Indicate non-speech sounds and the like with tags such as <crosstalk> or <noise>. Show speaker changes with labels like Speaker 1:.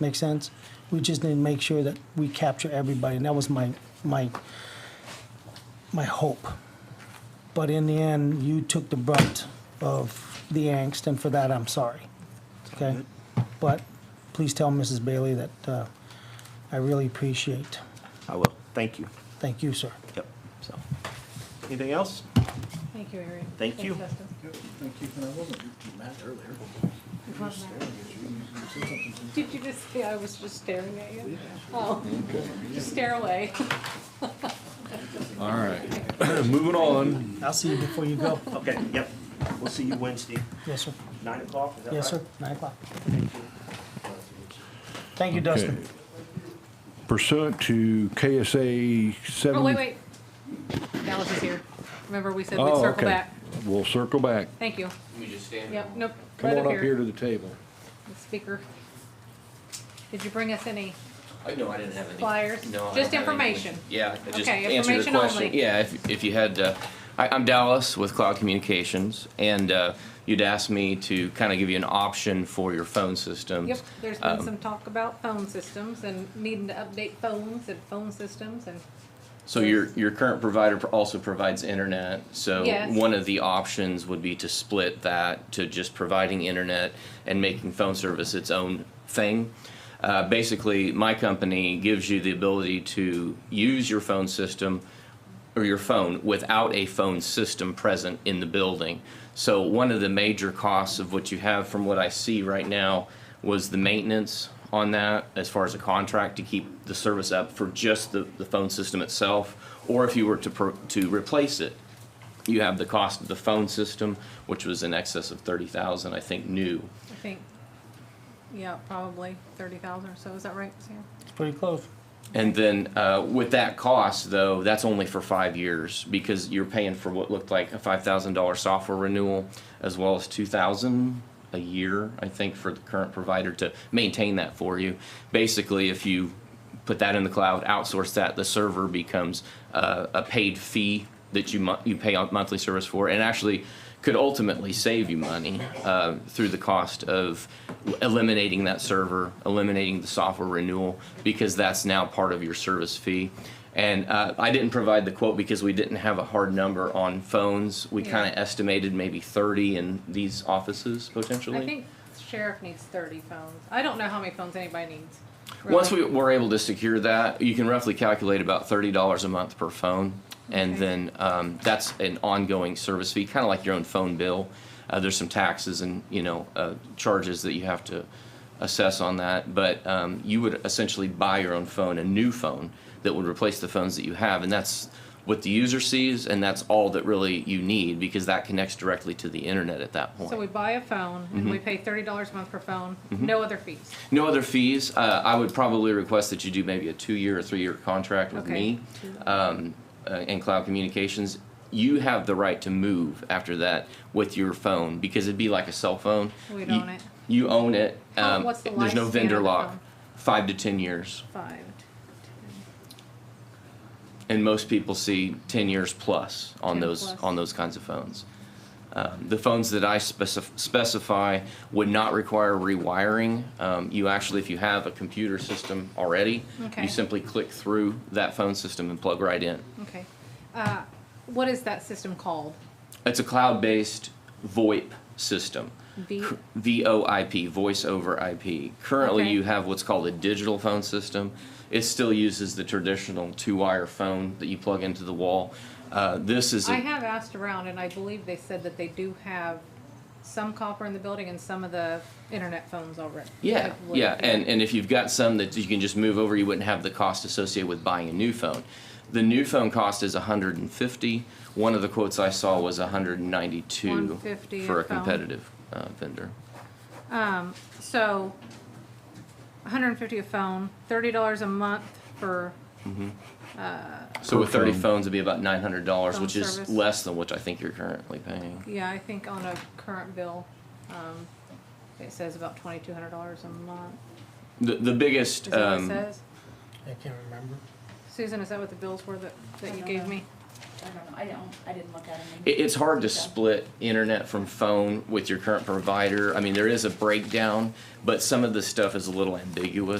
Speaker 1: Make sense? We just need to make sure that we capture everybody, and that was my, my, my hope. But in the end, you took the brunt of the angst, and for that, I'm sorry. Okay? But please tell Mrs. Bailey that uh, I really appreciate.
Speaker 2: I will. Thank you.
Speaker 1: Thank you, sir.
Speaker 2: Yep, so. Anything else?
Speaker 3: Thank you, Harry.
Speaker 2: Thank you.
Speaker 4: Good, Thank you, and I wasn't mad earlier. You were staring at you, and you said something to me.
Speaker 3: Did you just say I was just staring at you? Oh, <laughs> just stare away.
Speaker 5: All right, <clears throat> moving on.
Speaker 1: I'll see you before you go.
Speaker 2: Okay, yep. We'll see you Wednesday,
Speaker 1: Yes, sir.
Speaker 2: nine o'clock, is that right?
Speaker 1: Yes, sir. Nine o'clock. Thank you, Dustin.
Speaker 5: Okay. Pursuant to KSA seven.
Speaker 3: Oh, wait, wait. Dallas is here. Remember, we said we'd
Speaker 5: Oh,
Speaker 3: circle
Speaker 5: okay.
Speaker 3: back.
Speaker 5: We'll circle back.
Speaker 3: Thank you.
Speaker 6: We just stand.
Speaker 3: Yep, nope.
Speaker 5: Come
Speaker 3: Right
Speaker 5: on up here to the table.
Speaker 3: The Speaker. Did you bring us any?
Speaker 6: I know, I didn't have any.
Speaker 3: Flyers?
Speaker 6: No, I don't
Speaker 3: Just
Speaker 6: have any.
Speaker 3: information.
Speaker 6: Yeah, I just
Speaker 3: Okay,
Speaker 6: answered your
Speaker 3: information
Speaker 6: question.
Speaker 3: only.
Speaker 6: Yeah, if, if you had, uh, I, I'm Dallas with Cloud Communications, and, uh, you'd asked me to kind of give you an option for your phone systems.
Speaker 3: Yep, there's been
Speaker 6: Um,
Speaker 3: some talk about phone systems and needing to update phones and phone systems and,
Speaker 6: So your, your current provider pro- also provides internet, so
Speaker 3: Yes.
Speaker 6: one of the options would be to split that to just providing internet and making phone service its own thing. Uh, basically, my company gives you the ability to use your phone system or your phone without a phone system present in the building. So one of the major costs of what you have from what I see right now was the maintenance on that as far as a contract to keep the service up for just the, the phone system itself, or if you were to, pro- to replace it. You have the cost of the phone system, which was in excess of thirty thousand, I think, new.
Speaker 3: I think, yeah, probably thirty thousand or so. Is that right, Sam?
Speaker 1: It's pretty close.
Speaker 6: And then uh, with that cost, though, that's only for five years because you're paying for what looked like a five thousand dollar software renewal, as well as two thousand a year, I think, for the current provider to maintain that for you. Basically, if you put that in the cloud, outsource that, the server becomes uh, a paid fee that you mon- you pay on monthly service for, and actually could ultimately save you money uh, through the cost of eliminating that server, eliminating the software renewal, because that's now part of your service fee. And uh, I didn't provide the quote because we didn't have a hard number on phones. We
Speaker 3: Yeah.
Speaker 6: kind of estimated maybe 30 in these offices potentially.
Speaker 3: I think sheriff needs thirty phones. I don't know how many phones anybody needs.
Speaker 6: Once
Speaker 3: really.
Speaker 6: we were able to secure that, you can roughly calculate about thirty dollars a month per phone, and
Speaker 3: Okay.
Speaker 6: then um, that's an ongoing service fee, kind of like your own phone bill. Uh, there's some taxes and you know uh, charges that you have to assess on that, but um, you would essentially buy your own phone, a new phone that would replace the phones that you have, and that's what the user sees, and that's all that really you need because that connects directly to the internet at that point.
Speaker 3: So we buy a phone and
Speaker 6: Mm-hmm.
Speaker 3: we pay thirty dollars a month per phone, no other fees.
Speaker 6: No other fees. Uh, I would probably request that you do maybe a two-year or three-year contract with
Speaker 3: Okay.
Speaker 6: me um, uh, and Cloud Communications. You have the right to move after that with your phone because it'd be like a cell phone.
Speaker 3: We'd
Speaker 6: You-
Speaker 3: own it.
Speaker 6: You own it. Um,
Speaker 3: How- what's the
Speaker 6: there's no
Speaker 3: lifespan of
Speaker 6: vendor
Speaker 3: the
Speaker 6: lock.
Speaker 3: phone?
Speaker 6: Five to ten years,
Speaker 3: Five.
Speaker 6: and most people see ten years plus on
Speaker 3: 10
Speaker 6: those
Speaker 3: plus.
Speaker 6: on those kinds of phones. Um, the phones that I specif- specify would not require rewiring. Um, you actually, if you have a computer system already,
Speaker 3: Okay.
Speaker 6: you simply click through that phone system and plug right in.
Speaker 3: Okay. Uh, what is that system called?
Speaker 6: It's a cloud based VoIP system.
Speaker 3: V-
Speaker 6: V O I P, voice over IP. Currently,
Speaker 3: Okay.
Speaker 6: you have what's called a digital phone system. It still uses the traditional two wire phone that you plug into the wall. Uh, this is a
Speaker 3: I have asked around and I believe they said that they do have some copper in the building and some of the internet phones already.
Speaker 6: Yeah,
Speaker 3: I believe.
Speaker 6: yeah, and, and if you've got some that you can just move over, you wouldn't have the cost associated with buying a new phone. The new phone cost is 150. One of the quotes I saw was 192
Speaker 3: 150
Speaker 6: for
Speaker 3: a
Speaker 6: a
Speaker 3: phone.
Speaker 6: competitive uh, vendor.
Speaker 3: So, hundred and fifty a phone, thirty dollars a month for,
Speaker 6: So with 30
Speaker 5: phone.
Speaker 6: phones, it'd be about $900,
Speaker 3: Phone
Speaker 6: which is
Speaker 3: service.
Speaker 6: less than what I think you're currently paying.
Speaker 3: yeah, I think on a current bill, um, it says about twenty-two hundred dollars a month.
Speaker 6: The, the biggest
Speaker 3: Is that what it
Speaker 6: um,
Speaker 3: says?
Speaker 1: I can't remember.
Speaker 3: Susan, is that what the bills were that, that you gave me?
Speaker 7: I don't know, I don't, I didn't look at them.
Speaker 6: It, it's hard to split internet from phone with your current provider. I mean, there is a breakdown, but some of the stuff is a little ambiguous.